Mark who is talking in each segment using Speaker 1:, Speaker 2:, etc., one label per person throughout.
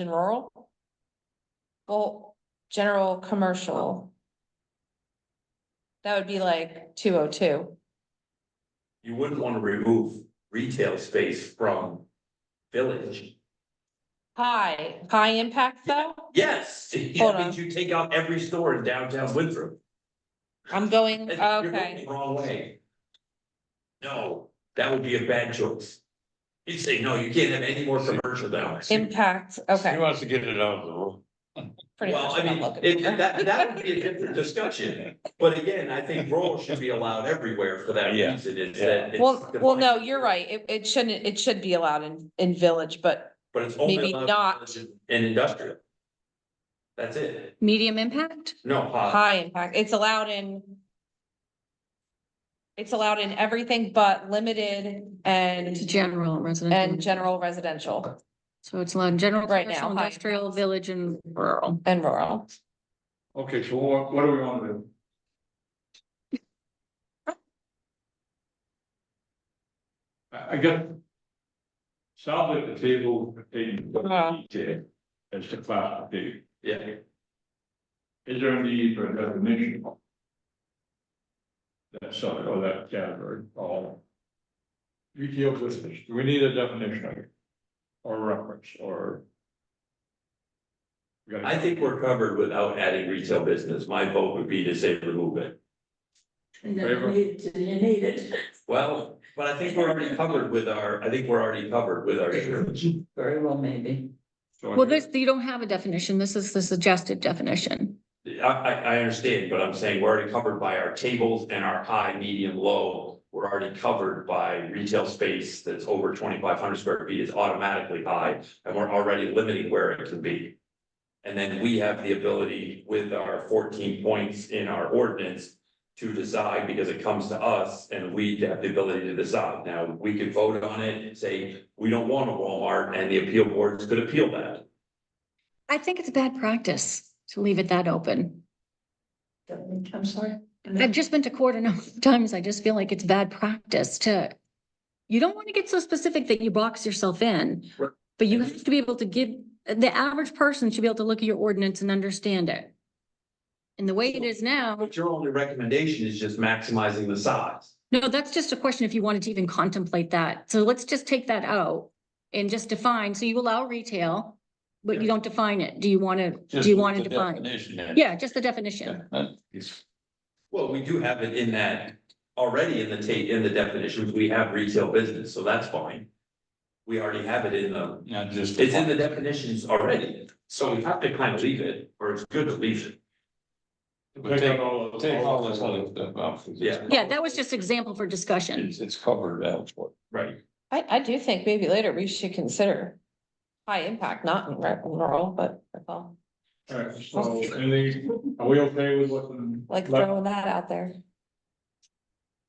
Speaker 1: and rural. Well, general commercial. That would be like two oh two.
Speaker 2: You wouldn't wanna remove retail space from village.
Speaker 1: High, high impact though,
Speaker 2: Yes, that
Speaker 1: Hold
Speaker 2: means you take out every store in downtown Winthrop.
Speaker 1: I'm going,
Speaker 2: You're going
Speaker 1: okay,
Speaker 2: the Wrong way. No, that would be a bad choice. You'd say, no, you can't have any more commercial down. there."
Speaker 1: impact, okay.
Speaker 3: wants to get it out of the room.
Speaker 1: pretty
Speaker 2: oh Well,
Speaker 1: much
Speaker 2: I
Speaker 1: what I'm
Speaker 2: mean,
Speaker 1: looking
Speaker 2: it,
Speaker 1: for.
Speaker 2: that, that would be a different discussion, but again, I think rural should be allowed everywhere for that
Speaker 3: Yeah.
Speaker 2: reason, it's that. it's
Speaker 1: Well, well, no,
Speaker 2: defined.
Speaker 1: you're right, it, it shouldn't, it should be allowed in, in village, but
Speaker 2: But it's only
Speaker 1: maybe
Speaker 2: allowed in
Speaker 1: not.
Speaker 2: village And industrial. That's it,
Speaker 4: Medium impact?
Speaker 2: no, high,
Speaker 1: high impact, it's allowed in. It's allowed in everything but limited
Speaker 4: To
Speaker 1: and,
Speaker 4: general
Speaker 1: and
Speaker 4: residential.
Speaker 1: general residential.
Speaker 4: So it's allowed in general,
Speaker 1: Right now,
Speaker 4: commercial,
Speaker 1: high
Speaker 4: industrial, village and rural.
Speaker 1: And rural.
Speaker 5: Okay, so what, what do we wanna do? I, I got. Sounds like the table contains
Speaker 1: Yeah.
Speaker 5: detail as to classification.
Speaker 2: yeah,
Speaker 5: Is there a need for a definition? That sub, or that category, or? Retail business, do we need a definition of it? Or reference, or? We gotta-
Speaker 2: I think we're covered without adding retail business, my vote would be to say remove it.
Speaker 6: And then you need, it, you need it.
Speaker 2: Well, but I think we're already covered with our, I think we're already covered with our insurance.
Speaker 6: Very well, maybe.
Speaker 5: So I
Speaker 4: Well,
Speaker 5: think-
Speaker 4: this, you don't have a definition. This is the suggested definition.
Speaker 2: I, I, I understand, but I'm saying we're already covered by our tables and our high, medium, low. We're already covered by retail space that's over twenty-five hundred square feet is automatically high, and we're already limiting where it can be. And then we have the ability with our fourteen points in our ordinance to decide because it comes to us and we have the ability to decide. Now, we could vote on it and say, we don't want a Walmart, and the appeal boards could appeal that.
Speaker 4: I think it's bad practice to leave it that open.
Speaker 6: I'm sorry.
Speaker 4: I've just been to court enough times. I just feel like it's bad practice to. You don't want to get so specific that you box yourself in.
Speaker 2: Right.
Speaker 4: But you have to be able to give, the average person should be able to look at your ordinance and understand it. And the way it is now,
Speaker 2: But your only recommendation is just maximizing the size.
Speaker 4: no, that's just a question if you wanted to even contemplate that. So let's just take that out. And just define, so you allow retail, but you don't define it. Do you want to, do you want to define? Yeah, just the definition.
Speaker 2: Well, we do have it in that, already in the ta, in the definitions, we have retail business, so that's fine. We already have it in the,
Speaker 3: Not just.
Speaker 2: it's in the definitions already, so we have to kind of leave it, or it's good to leave it.
Speaker 3: But take- Take all this other stuff out. 'cause it's-
Speaker 2: Yeah.
Speaker 4: Yeah, that was just example for discussion.
Speaker 3: It's, it's covered elsewhere.
Speaker 2: Right.
Speaker 1: I, I do think maybe later we should consider high impact, not in re- rural, but that's all.
Speaker 5: Alright, so anything, are we okay with what's in?
Speaker 1: like throwing that out there.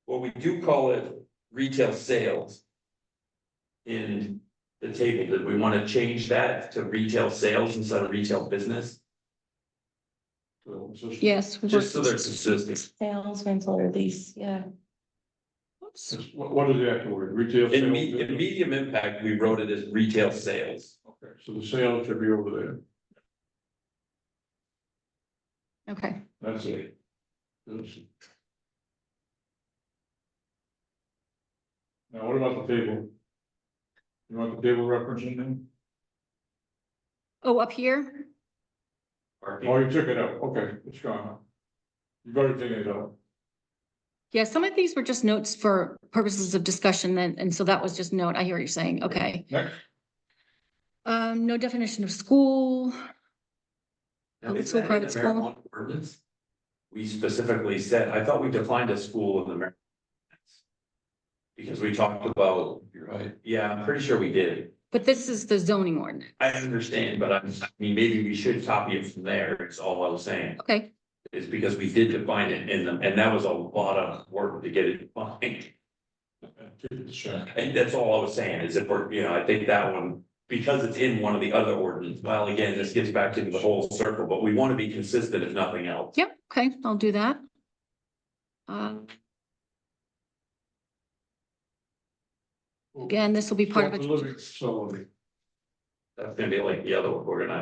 Speaker 2: Well, we do call it retail sales. In the table, did we want to change that to retail sales instead of retail business?
Speaker 4: Yes. we
Speaker 2: Just so
Speaker 4: were-
Speaker 2: they're consistent,
Speaker 1: Sales, rental, or lease, yeah.
Speaker 4: Oops.
Speaker 5: Just- What, what is the actual word, retail?
Speaker 2: in
Speaker 5: sales
Speaker 2: me, in
Speaker 5: business?
Speaker 2: medium impact, we wrote it as retail sales.
Speaker 5: Okay, So the sales should be over there,
Speaker 4: Okay.
Speaker 5: that's it. That's- Now, what about the table? You want the table reference in there?
Speaker 4: Oh, up here?
Speaker 5: Oh, you took it out, okay, it's gone. You've already taken it out.
Speaker 4: Yeah, some of these were just notes for purposes of discussion then, and so that was just note. I hear what you're saying. Okay.
Speaker 5: Next.
Speaker 4: Um, no definition of school.
Speaker 2: Now,
Speaker 4: Public
Speaker 2: is
Speaker 4: school,
Speaker 2: that in
Speaker 4: Oh, private
Speaker 2: the
Speaker 4: school?
Speaker 2: marijuana ordinance? We specifically said, I thought we defined a school in the Mar- Because we talked about,
Speaker 3: You're right.
Speaker 2: yeah, I'm pretty sure we did.
Speaker 4: But this is the zoning ordinance.
Speaker 2: I understand, but I'm, I mean, maybe we should copy it from there, is all I was saying.
Speaker 4: Okay,
Speaker 2: Is because we did define it in them, and that was a lot of work to get it defined.
Speaker 5: Keep it shut.
Speaker 2: And that's all I was saying, is if we're, you know, I think that one, because it's in one of the other ordinances, well, again, this gets back to the whole circle, but we want to be consistent if nothing else.
Speaker 4: yep, okay, I'll do that. Um. Again, this will be part of
Speaker 5: Short
Speaker 4: a
Speaker 5: Living facility,
Speaker 2: That's gonna be like the other one, we're gonna